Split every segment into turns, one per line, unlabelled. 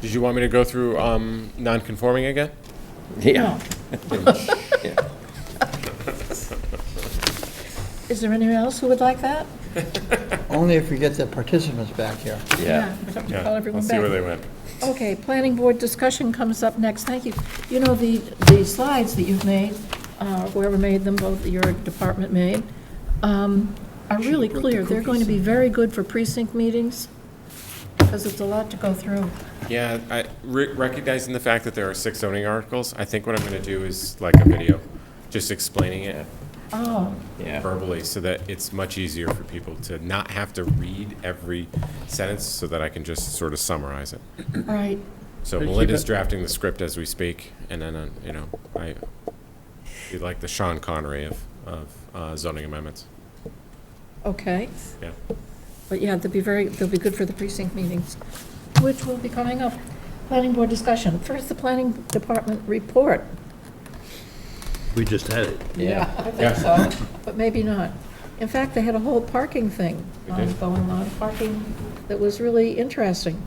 Did you want me to go through um, non-conforming again?
Yeah.
Is there anyone else who would like that?
Only if we get the participants back here.
Yeah.
We'd have to
Yeah,
call everyone
I'll see where
back.
they went.
Okay, planning board discussion comes up next, thank you. You know, the, the slides that you've made, uh, whoever made them, both your department made, um, are really clear. They're going to be very good for precinct meetings, because it's a lot to go through.
Yeah, I, re- recognizing the fact that there are six zoning articles, I think what I'm gonna do is like a video, just explaining it
Oh,
verbally, so that it's much easier for people to not have to read every sentence, so that I can just sort of summarize it.
right.
So Melinda's drafting the script as we speak, and then, uh, you know, I, be like the Sean Connery of, of uh, zoning amendments,
Okay,
yeah.
but yeah, they'll be very, they'll be good for the precinct meetings, which will be coming up. Planning board discussion. First, the planning department report.
We just had it.
Yeah, I think so, but maybe not. In fact, they had a whole parking thing um, going on, parking that was really interesting.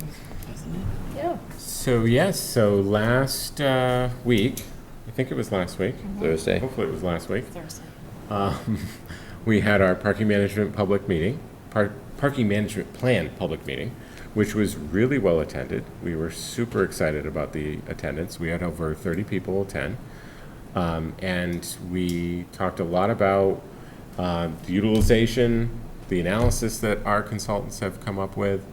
Yeah,
So, yes, so last uh, week, I think it was last week,
Thursday.
Hopefully it was last week. Um, We had our parking management public meeting, par- parking management plan public meeting, which was really well attended. We were super excited about the attendance. We had over 30 people attend. Um, And we talked a lot about um, the utilization, the analysis that our consultants have come up with,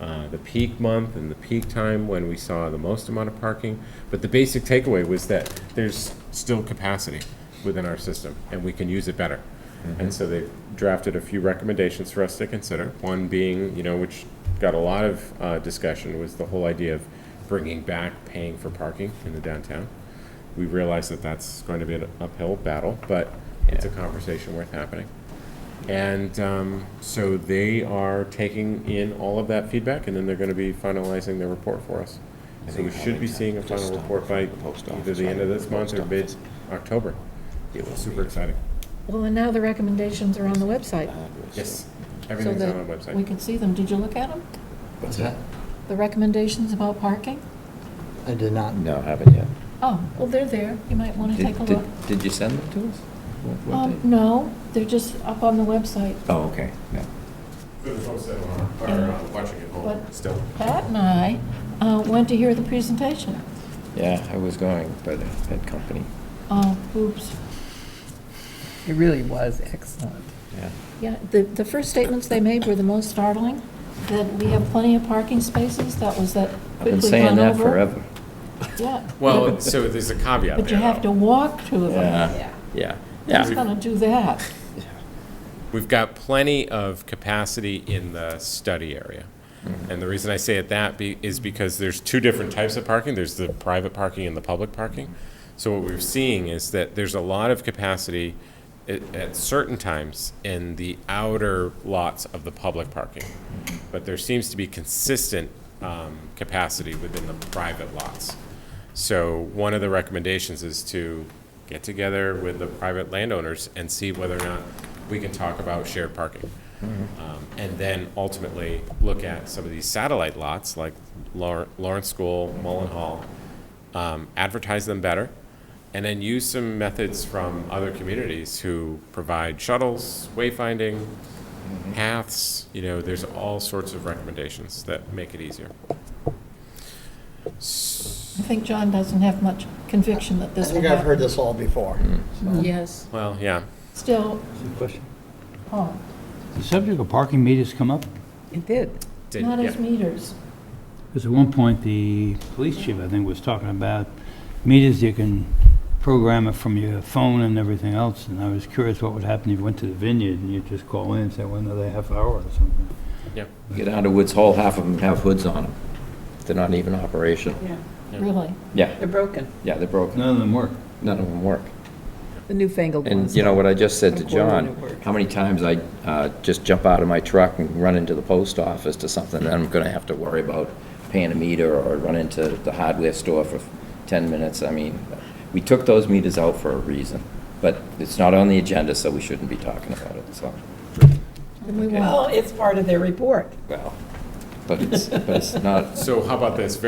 uh, the peak month and the peak time when we saw the most amount of parking. But the basic takeaway was that there's still capacity within our system, and we can use it better. And so they drafted a few recommendations for us to consider. One being, you know, which got a lot of uh, discussion, was the whole idea of bringing back paying for parking in the downtown we realize that that's going to be an uphill battle, but it's a conversation worth happening. And um, so they are taking in all of that feedback, and then they're going to be finalizing their report for us. So we should be seeing a final report by either the end of this month or mid-October. Super exciting.
well, and now the recommendations are on the website.
Uh,
Yes,
so
everything's
that
on our
We
website.
can see them. Did you look at them?
What's that?
The recommendations about parking?
I did not.
No, haven't yet.
Oh, well, they're there. You might want to
Did-
take a
did-
look.
Did you send them to us? What- what
Um,
day?
no, they're just up on the website.
Oh, okay, yeah.
For the folks that are,
are, uh,
watching at
home What?
still.
Pat and I uh, went to hear the presentation.
Yeah, I was going, but I had company,
Oh, oops.
It really was excellent.
yeah.
Yeah, the, the first statements they made were the most startling, that we have plenty of parking spaces, that was that
I've been
quickly
saying
gone
that
over.
forever.
Yeah.
Well, so there's a caveat there.
But you have to walk to them.
Yeah, yeah,
Who's
yeah.
gonna do that?
We've got plenty of capacity in the study area. And the reason I say it that be, is because there's two different types of parking. There's the private parking and the public parking. So what we're seeing is that there's a lot of capacity at, at certain times in the outer lots of the public parking. But there seems to be consistent, um, capacity within the private lots. So one of the recommendations is to get together with the private landowners and see whether or not we can talk about shared parking. Um, And then ultimately, look at some of these satellite lots, like Lawr- Lawrence School, Mullen Hall, um, advertise them better, and then use some methods from other communities who provide shuttles, wayfinding, paths, you know, there's all sorts of recommendations that make it easier.
I think John doesn't have much conviction that
I
this will
think
happen.
I've heard this all before. Hmm.
Yes,
Well, yeah.
still,
Question.
oh,
The subject of parking meters come up,
It did.
did-
not
yeah.
as meters.
because at one point, the police chief, I think, was talking about meters you can program it from your phone and everything else, and I was curious what would happen if you went to the vineyard and you just call in and say, well, another half hour or something.
Yeah.
Get out of Woods Hole, half of them have hoods on them. They're not even operational.
Yeah,
Really?
Yeah,
they're broken,
yeah, they're broken.
None of them work.
None of them work.
the newfangled ones.
And you know what I just said to
A quarter
John,
wouldn't work.
how many times I uh, just jump out of my truck and run into the post office to something that I'm going to have to worry about paying a meter or run into the hardware store for 10 minutes. I mean, we took those meters out for a reason, but it's not on the agenda, so we shouldn't be talking about it, so,
Then we won't.
Well, it's part of their report.
well, but it's, but it's not,
So how about this?